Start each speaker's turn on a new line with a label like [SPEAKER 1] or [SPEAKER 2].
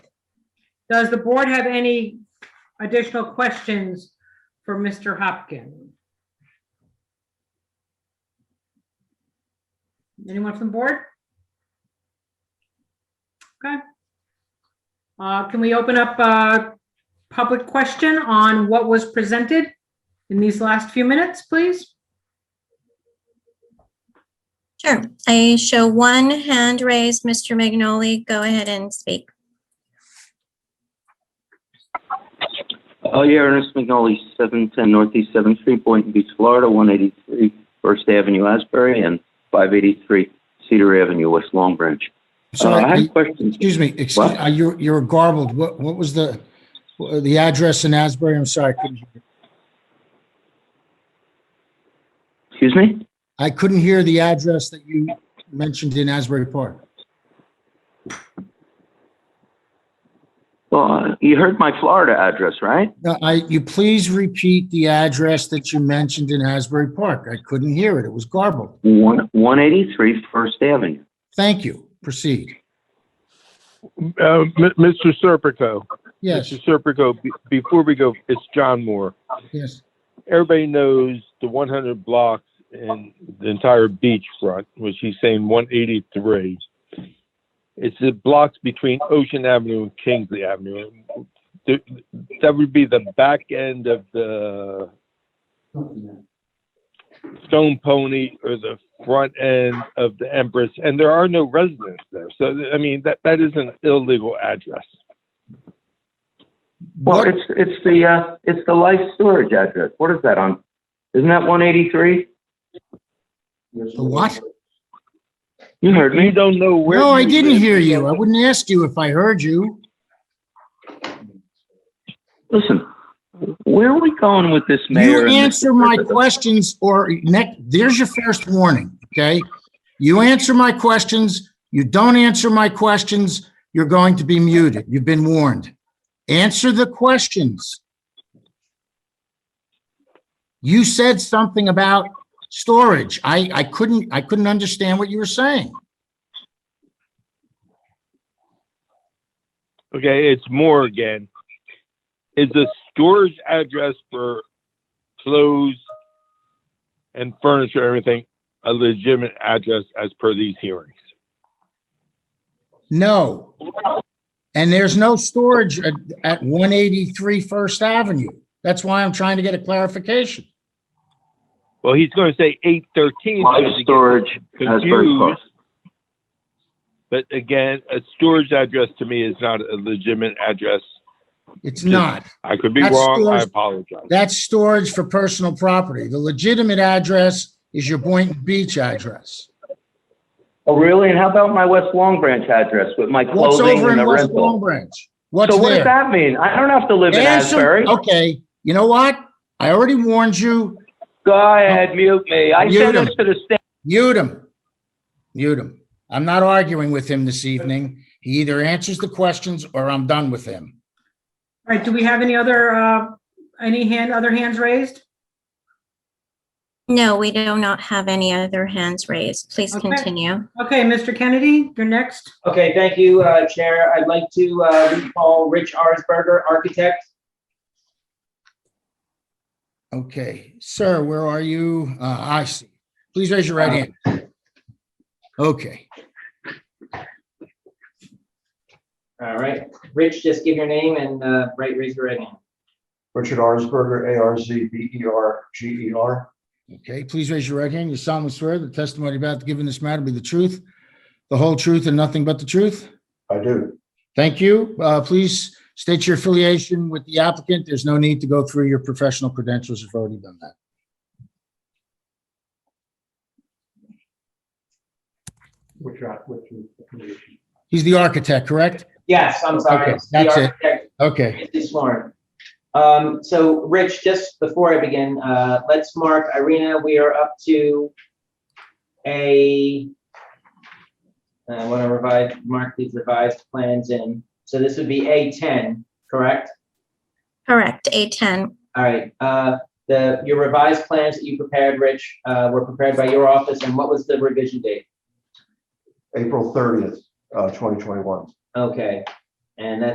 [SPEAKER 1] Does the board have any additional questions for Mr. Hopkins? Anyone from the board? Okay. Uh, Can we open up a public question on what was presented in these last few minutes, please?
[SPEAKER 2] Sure. I show one hand raised. Mr. Magnoli, go ahead and speak.
[SPEAKER 3] Oh, yeah, Ernest McNally, 710 Northeast 7th Street, Boynton Beach, Florida, 183 First Avenue, Asbury, and 583 Cedar Avenue, West Long Branch. Uh, I
[SPEAKER 4] Sorry,
[SPEAKER 3] have questions.
[SPEAKER 4] excuse me, excuse,
[SPEAKER 3] What?
[SPEAKER 4] uh, you're, you're garbled. What, what was the, uh, the address in Asbury? I'm sorry. I couldn't hear you.
[SPEAKER 3] Excuse me?
[SPEAKER 4] I couldn't hear the address that you mentioned in Asbury Park.
[SPEAKER 3] Well, uh, you heard my Florida address, right?
[SPEAKER 4] No, I, you please repeat the address that you mentioned in Asbury Park. I couldn't hear it. It was garbled.
[SPEAKER 3] One- 183 First Avenue.
[SPEAKER 4] Thank you. Proceed.
[SPEAKER 5] Uh, M- Mr. Serpico.
[SPEAKER 4] Yes,
[SPEAKER 5] Mr. Serpico, be- before we go, it's John Moore.
[SPEAKER 4] yes,
[SPEAKER 5] Everybody knows the 100 blocks and the entire beachfront, which he's saying 183. It's the blocks between Ocean Avenue and Kingsley Avenue. Th- That would be the back end of the Stone Pony or the front end of the Empress, and there are no residents there. So, I mean, that, that is an illegal address.
[SPEAKER 3] Well,
[SPEAKER 4] What-
[SPEAKER 3] it's, it's the, uh, it's the life storage address. What is that on? Isn't that 183?
[SPEAKER 4] the what?
[SPEAKER 3] You heard
[SPEAKER 5] You
[SPEAKER 3] me.
[SPEAKER 5] don't know where.
[SPEAKER 4] No, I
[SPEAKER 5] you
[SPEAKER 4] didn't
[SPEAKER 5] live.
[SPEAKER 4] hear you. I wouldn't ask you if I heard you.
[SPEAKER 3] Listen, where are we going with this mayor?
[SPEAKER 4] You
[SPEAKER 3] and Mr.
[SPEAKER 4] answer my
[SPEAKER 3] Serpico?
[SPEAKER 4] questions or next, there's your first warning, okay? You answer my questions, you don't answer my questions, you're going to be muted. You've been warned. Answer the questions. You said something about storage. I, I couldn't, I couldn't understand what you were saying.
[SPEAKER 5] Okay, it's Moore again. Is a storage address for clothes and furniture, and everything, a legitimate address as per these hearings?
[SPEAKER 4] No. And there's no storage at, at 183 First Avenue. That's why I'm trying to get a clarification.
[SPEAKER 5] Well, he's going to say eight thirteen.
[SPEAKER 3] Life storage Asbury Park.
[SPEAKER 5] But again, a storage address to me is not a legitimate address.
[SPEAKER 4] It's not.
[SPEAKER 5] I could be
[SPEAKER 4] That's
[SPEAKER 5] wrong. I
[SPEAKER 4] storage-
[SPEAKER 5] apologize.
[SPEAKER 4] That's storage for personal property. The legitimate address is your Boynton Beach address.
[SPEAKER 3] Oh, really? And how about my West Long Branch address with my
[SPEAKER 4] What's
[SPEAKER 3] clothing
[SPEAKER 4] over
[SPEAKER 3] and
[SPEAKER 4] in
[SPEAKER 3] the
[SPEAKER 4] West Long
[SPEAKER 3] rental?
[SPEAKER 4] Branch? What's
[SPEAKER 3] So what does
[SPEAKER 4] there?
[SPEAKER 3] that mean? I don't have to live in
[SPEAKER 4] Answer-
[SPEAKER 3] Asbury.
[SPEAKER 4] Okay, you know what? I already warned you.
[SPEAKER 3] Go ahead, mute me. I
[SPEAKER 4] Mute
[SPEAKER 3] sent
[SPEAKER 4] him.
[SPEAKER 3] this to the state.
[SPEAKER 4] Mute him. Mute him. I'm not arguing with him this evening. He either answers the questions or I'm done with him.
[SPEAKER 1] All right, do we have any other, uh, any hand, other hands raised?
[SPEAKER 2] No, we do not have any other hands raised. Please
[SPEAKER 1] Okay.
[SPEAKER 2] continue.
[SPEAKER 1] Okay, Mr. Kennedy, you're next.
[SPEAKER 6] Okay, thank you, uh, Chair. I'd like to uh, recall Rich Arsberger, architect.
[SPEAKER 4] Okay, sir, where are you? Uh, I see. Please raise your right hand.
[SPEAKER 3] Uh,
[SPEAKER 4] Okay,
[SPEAKER 6] All right, Rich, just give your name and uh, right, raise your right hand.
[SPEAKER 7] Richard Arzberger, A R Z B E R G E R.
[SPEAKER 4] okay, please raise your right hand. You solemnly swear the testimony about to give in this matter be the truth, the whole truth and nothing but the truth?
[SPEAKER 7] I do.
[SPEAKER 4] Thank you. Uh, Please state your affiliation with the applicant. There's no need to go through your professional credentials. You've already done that.
[SPEAKER 7] Which, I- which is the condition.
[SPEAKER 4] He's the architect, correct?
[SPEAKER 6] Yes, I'm sorry.
[SPEAKER 4] Okay,
[SPEAKER 6] It's
[SPEAKER 4] that's it.
[SPEAKER 6] The architect,
[SPEAKER 4] Okay,
[SPEAKER 6] Izzy Sworn. Um, So, Rich, just before I begin, uh, let's mark Irina, we are up to a, I want to revise, mark these revised plans in. So this would be A10, correct?
[SPEAKER 2] Correct, A10.
[SPEAKER 6] All right, uh, the, your revised plans that you prepared, Rich, uh, were prepared by your office, and what was the revision date?
[SPEAKER 7] April thirtieth, uh, twenty twenty-one.
[SPEAKER 6] Okay, and that